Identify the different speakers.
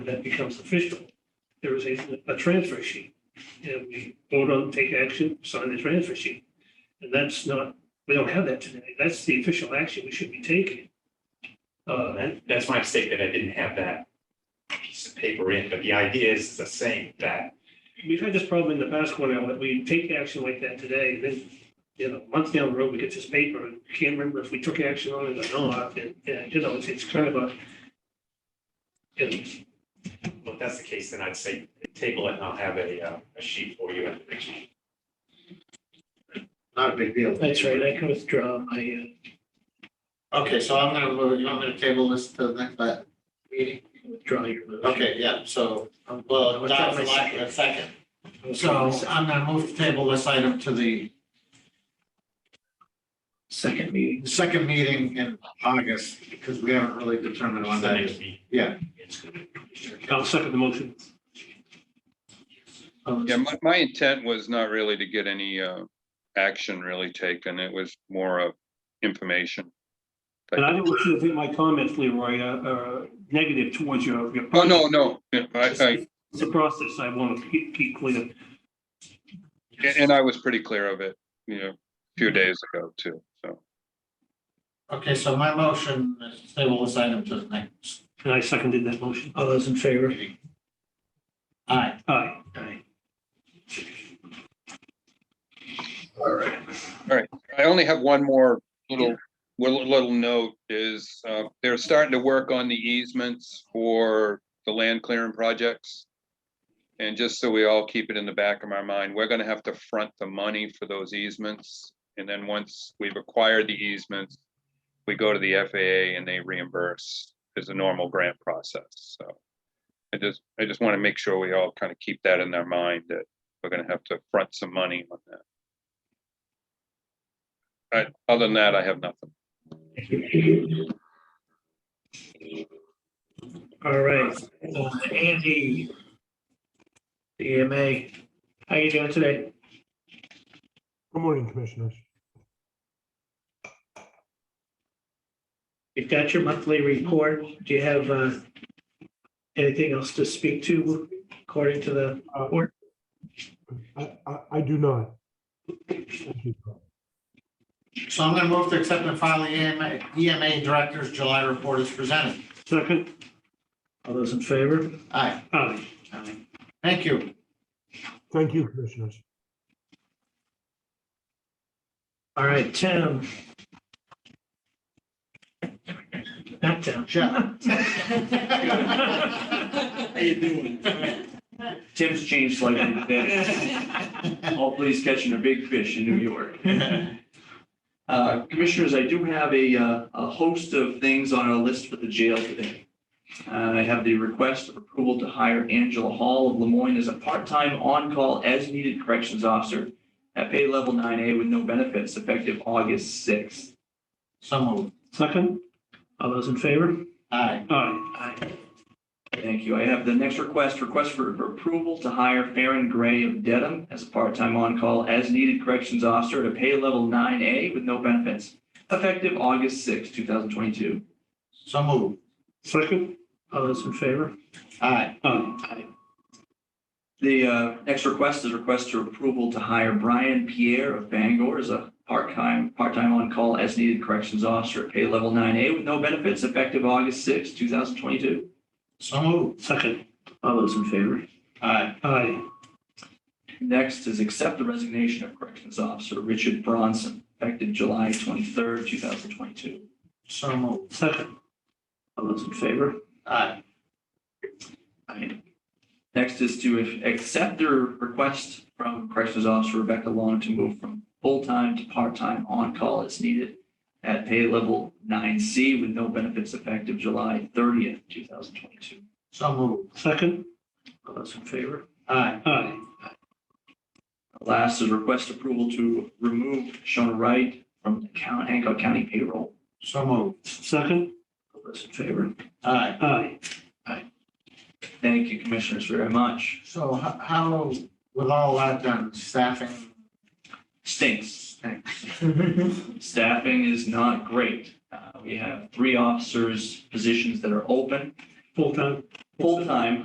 Speaker 1: that becomes official, there is a, a transfer sheet. And we vote on, take action, sign the transfer sheet. And that's not, we don't have that today. That's the official action we should be taking.
Speaker 2: Uh,
Speaker 1: Uh,
Speaker 2: that- that's my mistake that I didn't have that piece of paper in, but the idea is the same, that
Speaker 1: we've had this problem in the past, Cornell, that we take action like that today, and then, you know, a month down the road, we get this paper, and we can't remember if we took action on it or not, and, and, you know, it's, it's kind of a, you know,
Speaker 2: well, if that's the case, then I'd say table it and I'll have a, uh, a sheet for you at the next meeting.
Speaker 3: Not a big deal.
Speaker 4: That's right, I can withdraw my,
Speaker 1: uh,
Speaker 3: Okay, so I'm gonna move, you want me to table this to the next uh, meeting?
Speaker 4: uh, withdraw your motion.
Speaker 3: Okay, yeah, so, um, well, not for lack of a second. So I'm gonna move to table this item to the
Speaker 4: Second meeting.
Speaker 3: second meeting in August, because we haven't really determined when
Speaker 2: It's the
Speaker 3: that
Speaker 2: next
Speaker 3: is.
Speaker 2: meeting.
Speaker 3: Yeah.
Speaker 1: I'll second the motion.
Speaker 3: Um,
Speaker 5: Yeah, my, my intent was not really to get any, uh, action really taken. It was more of information.
Speaker 1: And I don't want you to think my comments, Leroy, are- are negative towards your. your-
Speaker 5: Oh, no, no, yeah, I,
Speaker 1: It's a process I want to keep, keep clear.
Speaker 5: I, and I was pretty clear of it, you know, a few days ago too, so.
Speaker 3: Okay, so my motion is to table this item to the next
Speaker 1: And I seconded that motion.
Speaker 4: All those in favor?
Speaker 3: meeting. Aye.
Speaker 1: Aye.
Speaker 4: Aye.
Speaker 5: I only have one more little, little, little note is, uh, they're starting to work on the easements for the land clearing projects. And just so we all keep it in the back of our mind, we're gonna have to front the money for those easements. And then once we've acquired the easements, we go to the FAA and they reimburse as a normal grant process, so. I just, I just wanna make sure we all kind of keep that in our mind that we're gonna have to front some money on that. But other than that, I have nothing.
Speaker 4: All right, uh, Andy. EMA, how you doing today?
Speaker 6: Good morning, Commissioners.
Speaker 4: You've got your monthly report. Do you have, uh, anything else to speak to according to the report?
Speaker 6: I, I, I do not. Thank you.
Speaker 3: So I'm gonna move to accept and file the E EMA, EMA Director's July report as presented.
Speaker 1: Second,
Speaker 4: All those in favor?
Speaker 3: Aye.
Speaker 1: aye.
Speaker 3: Aye. Thank you.
Speaker 6: Thank you, Commissioners.
Speaker 4: All right, Tim. Not Tim.
Speaker 3: Jeff.
Speaker 4: How
Speaker 3: you doing?
Speaker 7: Tim's changed slightly today. Hopefully he's catching a big fish in New York. Uh, Commissioners, I do have a, uh, a host of things on our list for the jail today. Uh, I have the request of approval to hire Angela Hall of Lemoyne as a part-time on-call as-needed corrections officer at pay level 9A with no benefits effective August 6th.
Speaker 3: So moved.
Speaker 1: Second,
Speaker 4: All those in favor?
Speaker 3: Aye.
Speaker 1: aye.
Speaker 7: Thank you. I have the next request, request for approval to hire Farron Gray of Dedham as a part-time on-call as-needed corrections officer at a pay level 9A with no benefits, effective August 6, 2022.
Speaker 3: So moved.
Speaker 1: Second,
Speaker 4: All those in favor?
Speaker 3: Aye.
Speaker 1: aye.
Speaker 7: The uh, next request is request for approval to hire Brian Pierre of Bangor as a part-time, part-time on-call as-needed corrections officer at pay level 9A with no benefits, effective August 6, 2022.
Speaker 3: So moved.
Speaker 1: Second,
Speaker 4: All those in favor?
Speaker 3: Aye.
Speaker 1: aye.
Speaker 7: Next is accept the resignation of corrections officer Richard Bronson, effective July 23rd, 2022.
Speaker 3: So moved.
Speaker 1: Second,
Speaker 4: All those in favor?
Speaker 3: Aye.
Speaker 7: Aye. Next is to accept the request from Corrections Officer Rebecca Long to move from full-time to part-time on-call as needed at pay level nine C with no benefits effective July thirtieth, two thousand twenty-two.
Speaker 3: So moved.
Speaker 1: second,
Speaker 4: All those in favor?
Speaker 3: Aye.
Speaker 1: aye.
Speaker 7: Last is request approval to remove Shona Wright from the count, Hancock County payroll.
Speaker 3: So moved.
Speaker 1: Second,
Speaker 4: All those in favor?
Speaker 3: Aye.
Speaker 1: aye.
Speaker 7: Thank you, Commissioners, very much.
Speaker 3: So ho- how, with all that done, staffing?
Speaker 7: Stinks. Staffing is not great. Uh, we have three officers' positions that are open.
Speaker 1: Full-time,
Speaker 7: full-time